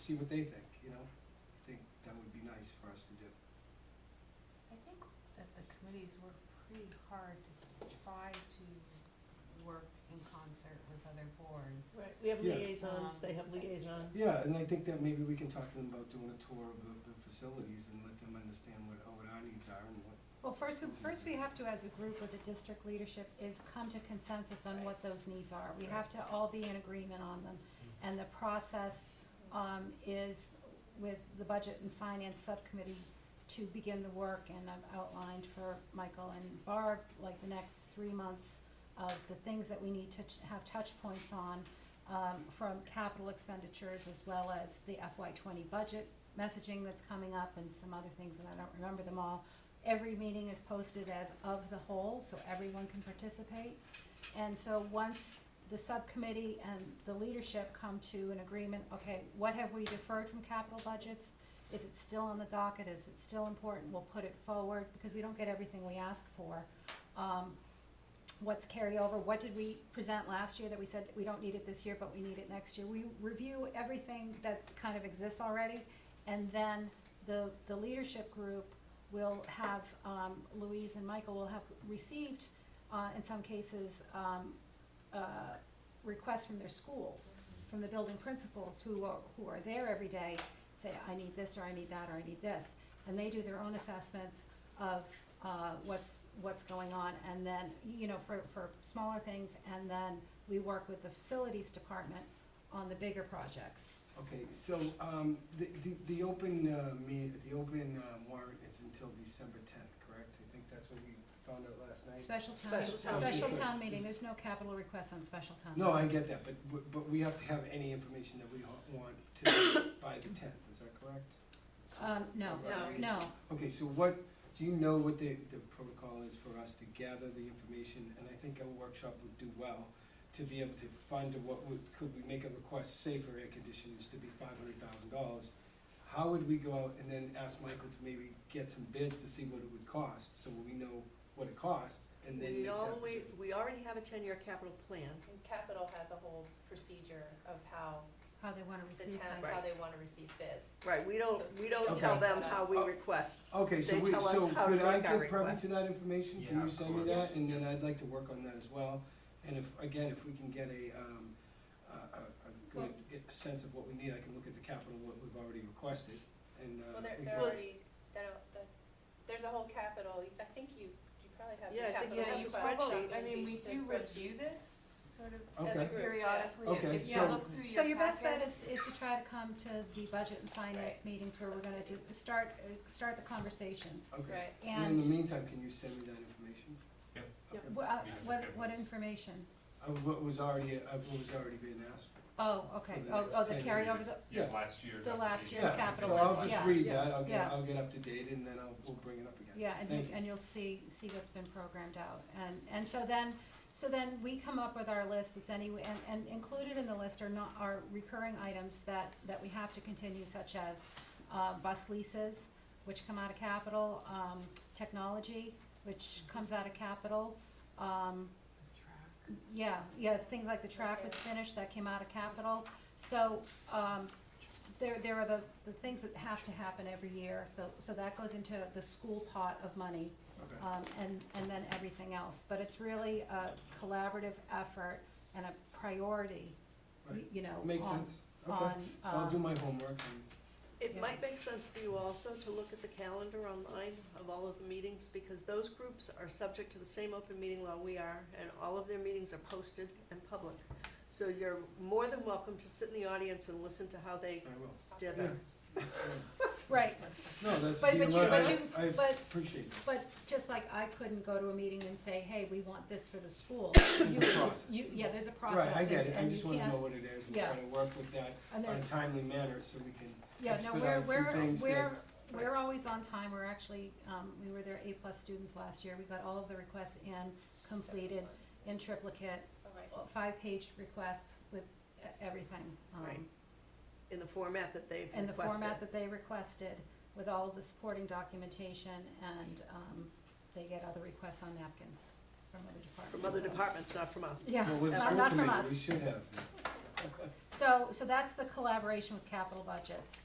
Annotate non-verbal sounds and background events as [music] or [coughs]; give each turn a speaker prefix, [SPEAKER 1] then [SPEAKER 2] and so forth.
[SPEAKER 1] see what they think, you know? I think that would be nice for us to do.
[SPEAKER 2] I think that the committees work pretty hard to try to work in concert with other boards.
[SPEAKER 3] Right, we have
[SPEAKER 1] Yeah.
[SPEAKER 3] liaisons, they have
[SPEAKER 2] Um,
[SPEAKER 3] liaisons.
[SPEAKER 1] Yeah, and I think that maybe we can talk to them about doing a tour of the, the facilities and let them understand what, what our needs are and what,
[SPEAKER 4] Well, first, we first we have to, as a group with the district leadership, is come to consensus on what those needs are. We have to all be in agreement on them. And the process, um, is with the Budget and Finance Subcommittee to begin the work. And I've outlined for Michael and Barb, like the next three months of the things that we need to t- have touch points on, um, from capital expenditures as well as the FY twenty budget messaging that's coming up and some other things, and I don't remember them all. Every meeting is posted as of the whole, so everyone can participate. And so once the subcommittee and the leadership come to an agreement, okay, what have we deferred from capital budgets? Is it still on the docket? Is it still important? We'll put it forward because we don't get everything we ask for. Um, what's carryover? What did we present last year that we said we don't need it this year, but we need it next year? We review everything that kind of exists already. And then the, the leadership group will have, um, Louise and Michael will have received, uh, in some cases, um, uh, requests from their schools, from the building principals who are, who are there every day, say, I need this, or I need that, or I need this. And they do their own assessments of, uh, what's, what's going on, and then, you know, for, for smaller things, and then we work with the facilities department on the bigger projects.
[SPEAKER 1] okay, so, um, the, the, the open, uh, me, the open, uh, warrant is until December tenth, correct? I think that's what we found out last night.
[SPEAKER 4] Special town,
[SPEAKER 3] Special
[SPEAKER 1] town
[SPEAKER 4] special
[SPEAKER 1] meeting.
[SPEAKER 4] town meeting, there's no capital request on special town.
[SPEAKER 1] No, I
[SPEAKER 4] meeting.
[SPEAKER 1] get that, but, w- but we have to have any information that we ha- want to, [coughs] by the tenth, is that correct?
[SPEAKER 4] Um, no,
[SPEAKER 3] No.
[SPEAKER 4] no,
[SPEAKER 1] Okay, so what, do you know what the, the protocol is for us to gather the information? And I think a workshop would do well to be able to fund what would, could we make a request, say for air conditioners to be five hundred thousand dollars? How would we go out and then ask Michael to maybe get some bids to see what it would cost, so we know what it costs, and then make
[SPEAKER 3] We
[SPEAKER 1] that
[SPEAKER 3] always,
[SPEAKER 1] decision?
[SPEAKER 3] we already have a ten-year capital plan.
[SPEAKER 5] And Capital has a whole procedure of how
[SPEAKER 4] how they wanna
[SPEAKER 5] the
[SPEAKER 4] receive
[SPEAKER 5] town,
[SPEAKER 4] things.
[SPEAKER 5] how they wanna receive bids.
[SPEAKER 3] Right, we don't, we don't tell
[SPEAKER 1] Okay.
[SPEAKER 3] them how we
[SPEAKER 1] Oh.
[SPEAKER 3] request.
[SPEAKER 1] Okay, so
[SPEAKER 3] They
[SPEAKER 1] we,
[SPEAKER 3] tell us
[SPEAKER 1] so
[SPEAKER 3] how to
[SPEAKER 1] could I
[SPEAKER 3] make our
[SPEAKER 1] get privy to
[SPEAKER 3] request.
[SPEAKER 1] that information? Can
[SPEAKER 6] Yeah,
[SPEAKER 1] you
[SPEAKER 6] of
[SPEAKER 1] send me
[SPEAKER 6] course.
[SPEAKER 1] that? And then I'd like to work on that as well. And if, again, if we can get a, um, a, a, a good i- sense of what we need, I can look at the capital, what we've already requested, and, uh,
[SPEAKER 5] Well, they're,
[SPEAKER 1] we
[SPEAKER 5] they're
[SPEAKER 1] can-
[SPEAKER 5] already, they don't, the, there's a whole capital, I think you, you probably have
[SPEAKER 3] Yeah, I
[SPEAKER 5] the
[SPEAKER 3] think
[SPEAKER 5] capital.
[SPEAKER 3] you have
[SPEAKER 5] request
[SPEAKER 3] the
[SPEAKER 5] documentation,
[SPEAKER 3] spreadsheet.
[SPEAKER 5] the
[SPEAKER 2] I mean, we do
[SPEAKER 5] spreadsheet.
[SPEAKER 2] review this sort of
[SPEAKER 1] Okay.
[SPEAKER 2] periodically,
[SPEAKER 1] Okay,
[SPEAKER 2] if you
[SPEAKER 1] so-
[SPEAKER 2] look through your packets.
[SPEAKER 4] So your best bet is, is to try to come to the budget and finance
[SPEAKER 5] Right.
[SPEAKER 4] meetings where we're gonna just start, uh, start the conversations.
[SPEAKER 1] Okay.
[SPEAKER 5] Right,
[SPEAKER 1] And in the
[SPEAKER 4] And
[SPEAKER 1] meantime, can you send me that information?
[SPEAKER 6] Yep.
[SPEAKER 3] Yep.
[SPEAKER 1] Okay.
[SPEAKER 4] wha- uh,
[SPEAKER 6] We have
[SPEAKER 4] what,
[SPEAKER 6] the
[SPEAKER 4] what
[SPEAKER 6] tables.
[SPEAKER 4] information?
[SPEAKER 1] Uh, what was already, uh, what was already being asked for.
[SPEAKER 4] Oh, okay,
[SPEAKER 1] For the
[SPEAKER 4] oh,
[SPEAKER 1] next
[SPEAKER 4] oh, the
[SPEAKER 1] 10
[SPEAKER 4] carryover,
[SPEAKER 6] Just-
[SPEAKER 4] the,
[SPEAKER 6] Yeah,
[SPEAKER 1] Yeah.
[SPEAKER 6] last year's.
[SPEAKER 4] The last
[SPEAKER 6] application.
[SPEAKER 4] year's
[SPEAKER 1] Yeah,
[SPEAKER 4] capital
[SPEAKER 1] So I'll
[SPEAKER 4] list,
[SPEAKER 1] just
[SPEAKER 4] yeah.
[SPEAKER 1] read that, I'll get,
[SPEAKER 4] Yeah.
[SPEAKER 1] I'll get up to date, and then I'll, we'll bring it up again.
[SPEAKER 4] Yeah, and
[SPEAKER 1] Thank
[SPEAKER 4] you, and you'll see, see what's been programmed out, and, and so then, so then we come up with our list, it's any, and, and included in the list are not, are recurring items that, that we have to continue, such as, uh, bus leases, which come out of capital, um, technology, which comes out of capital, um, yeah, yeah, things like the track was
[SPEAKER 5] Okay.
[SPEAKER 4] finished, that came out of capital, so, um, there, there are the, the things that have to happen every year, so, so that goes into the school pot of money,
[SPEAKER 1] Okay.
[SPEAKER 4] um, and, and then everything else, but it's really a collaborative effort and a priority, y-
[SPEAKER 1] Right.
[SPEAKER 4] you know,
[SPEAKER 1] Makes
[SPEAKER 4] uh, on-
[SPEAKER 1] sense, okay,
[SPEAKER 4] on,
[SPEAKER 1] so I'll do
[SPEAKER 4] um,
[SPEAKER 1] my homework and.
[SPEAKER 3] It
[SPEAKER 4] Yeah.
[SPEAKER 3] might make sense for you also to look at the calendar online of all of the meetings, because those groups are subject to the same open meeting law we are, and all of their meetings are posted and public. So you're more than welcome to sit in the audience and listen to how they
[SPEAKER 1] I will.
[SPEAKER 3] did it.
[SPEAKER 4] Right,
[SPEAKER 1] No, that's,
[SPEAKER 4] But-
[SPEAKER 1] you know
[SPEAKER 4] but you-
[SPEAKER 1] what,
[SPEAKER 4] but
[SPEAKER 1] I,
[SPEAKER 4] you-
[SPEAKER 1] I
[SPEAKER 4] but
[SPEAKER 1] appreciate that.
[SPEAKER 4] But just like I couldn't go to a meeting and say, hey, we want this for the school.
[SPEAKER 1] It's a
[SPEAKER 4] You-
[SPEAKER 1] process.
[SPEAKER 4] You, yeah, there's a process.
[SPEAKER 1] Right, I get
[SPEAKER 4] and-
[SPEAKER 1] it, I
[SPEAKER 4] and
[SPEAKER 1] just
[SPEAKER 4] you
[SPEAKER 1] wanna
[SPEAKER 4] can't-
[SPEAKER 1] know what it is and
[SPEAKER 4] yeah.
[SPEAKER 1] try to work with that
[SPEAKER 4] And
[SPEAKER 1] on a
[SPEAKER 4] there's,
[SPEAKER 1] timely manner so we can,
[SPEAKER 4] yeah, no, we're,
[SPEAKER 1] expedite some
[SPEAKER 4] we're,
[SPEAKER 1] things
[SPEAKER 4] we're,
[SPEAKER 1] that-
[SPEAKER 4] we're always on time. We're actually, um, we were their A-plus students last year. We got all of the requests in, completed, in triplicate,
[SPEAKER 5] alright.
[SPEAKER 4] five-page requests with e- everything. um,
[SPEAKER 3] Right. In the format that they've
[SPEAKER 4] In the
[SPEAKER 3] requested.
[SPEAKER 4] format that they requested, with all of the supporting documentation, and, um, they get other requests on napkins from other departments.
[SPEAKER 3] From other
[SPEAKER 4] so-
[SPEAKER 3] departments, not from us.
[SPEAKER 4] Yeah,
[SPEAKER 1] well, with
[SPEAKER 3] not-
[SPEAKER 1] school
[SPEAKER 4] not from
[SPEAKER 1] committee,
[SPEAKER 4] us.
[SPEAKER 1] we should have.
[SPEAKER 4] so, so that's the collaboration with capital budgets.